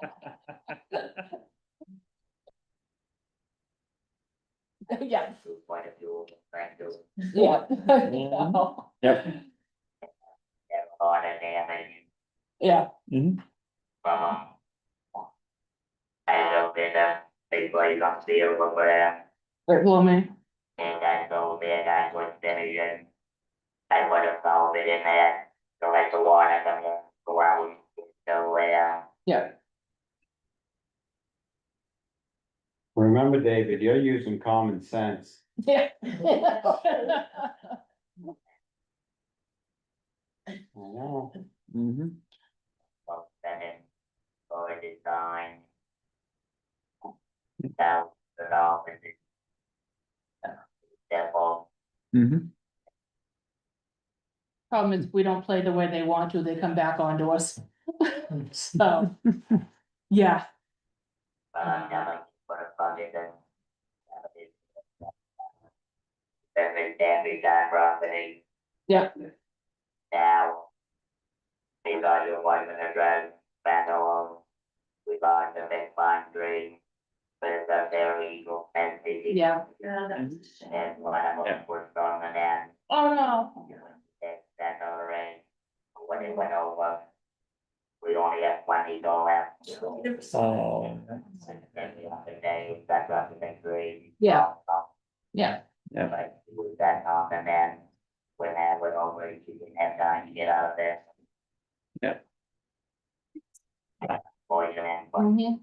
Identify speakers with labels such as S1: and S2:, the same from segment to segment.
S1: Yeah.
S2: food point of view, brand new,
S1: Yeah.
S3: Yep.
S2: have a lot of damage,
S1: Yeah,
S2: um. I don't think that they play up there over there,
S1: they're blooming.
S2: and I go there, I was there, and I would have found it in there, so let the water come in, go out, so, uh,
S1: Yeah,
S3: Remember, David, you're using common sense.
S1: yeah.
S3: I know.
S2: well, then it, or design. That, that all, and it. That all.
S4: Mm-hmm.
S1: Problem is, we don't play the way they want to, they come back onto us. So, yeah,
S2: But I never put a budget in. Every, every time property.
S1: Yeah.
S2: Now. We got your one minute drive back along. We bought the big pine tree. But it's a very equal entity.
S1: yeah.
S2: And one of them
S3: Yeah.
S2: worked on the net.
S1: Oh, no.
S2: That, that all right. When it went over. We only have twenty dollars.
S3: Oh.
S1: Yeah, yeah,
S2: Like, move that off and then when that went over, you didn't have time to get out of there.
S3: Yep.
S2: Poison and what
S1: mhm.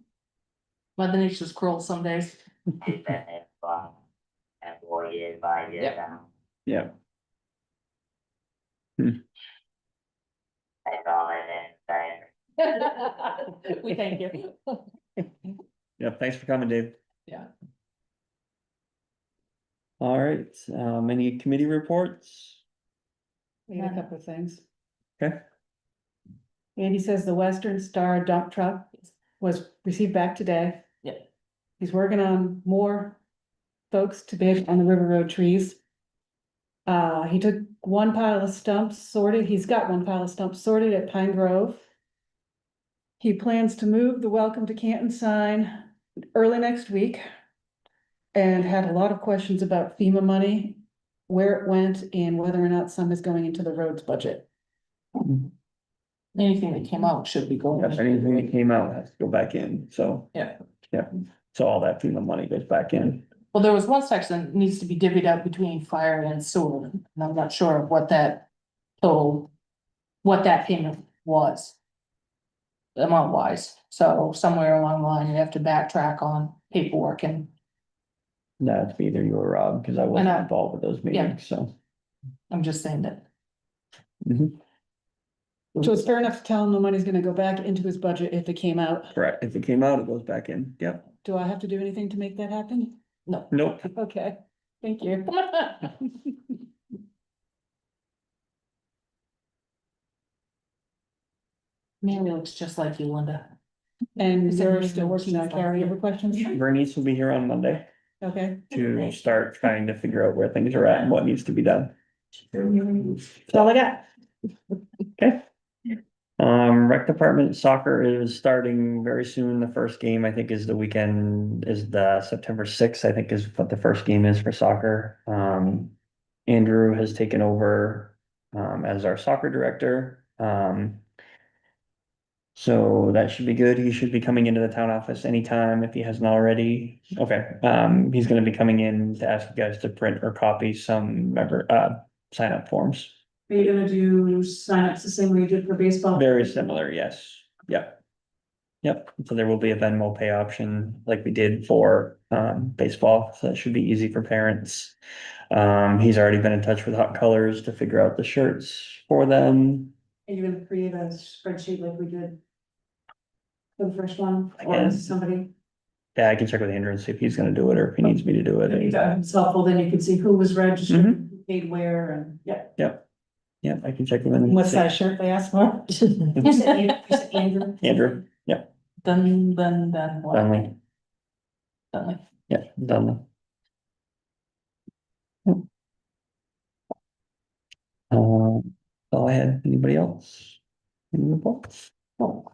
S1: Mother Nature's cruel some days.
S2: you've been there for, and four years, five years
S1: Yep.
S2: now.
S3: Yeah. Hmm.
S2: That's all it is, but-
S1: We thank you.
S4: Yeah, thanks for coming, Dave.
S1: Yeah.
S4: All right, um, any committee reports?
S5: We had a
S1: Yeah.
S5: couple of things.
S4: Okay.
S5: Andy says the Western Star dump truck was received back today.
S1: Yeah.
S5: He's working on more folks to bid on the River Road trees. Uh, he took one pile of stumps sorted, he's got one pile of stumps sorted at Pine Grove. He plans to move the Welcome to Canton sign early next week. And had a lot of questions about FEMA money where it went and whether or not some is going into the roads budget.
S1: Anything that came out should be going.
S4: If anything that came out has to go back in, so.
S1: Yeah.
S4: Yeah, so all that FEMA money goes back in.
S1: Well, there was one section that needs to be divvied up between fire and sewer, and I'm not sure of what that total, what that payment was. Amount wise, so somewhere along the line, you have to backtrack on paperwork and,
S4: That's either you or Rob, because I wasn't
S1: know.
S4: involved with those meetings, so.
S1: I'm just saying that.
S5: So it's fair enough to tell him the money's gonna go back into his budget if it came out.
S4: Correct, if it came out, it goes back in, yep,
S5: Do I have to do anything to make that happen?
S4: nope.
S5: Okay, thank you.
S1: Mary looks just like you, Linda.
S5: And
S1: Is
S5: you're
S1: there
S5: still working on
S1: any-
S5: carryover questions?
S4: Bernice will be here on Monday
S5: Okay,
S4: to start trying to figure out where things are at and what needs to be done.
S5: that's all I got.
S4: Um, rec department soccer is starting very soon. The first game, I think, is the weekend, is the September sixth, I think is what the first game is for soccer. Um, Andrew has taken over, um, as our soccer director. Um, so that should be good. He should be coming into the town office anytime if he hasn't already. Okay, um, he's gonna be coming in to ask you guys to print or copy some member, uh, sign up forms.
S6: Are you gonna do signups the same way you did for baseball?
S4: Very similar, yes, yep. Yep, so there will be a Venmo pay option like we did for um baseball, so that should be easy for parents. Um, he's already been in touch with Hot Colors to figure out the shirts for them.
S6: Are you gonna create a spreadsheet like we did? for The first one,
S4: I
S6: or
S4: guess.
S6: somebody,
S4: Yeah, I can check with Andrew and see if he's gonna do it or if he needs me to do
S6: If
S4: it.
S6: it's helpful, then you can see who was registered, who paid where, and, yeah.
S4: Yeah, I can check with him. and
S5: What
S4: see.
S5: size shirt they asked for?
S6: You said An- you said Andrew?
S4: Andrew,
S1: Dun, dun, dun. what?
S4: Dunley,
S1: Dunley.
S4: yeah, Dunley. Uh, Um, all I had, anybody else? Any reports? No.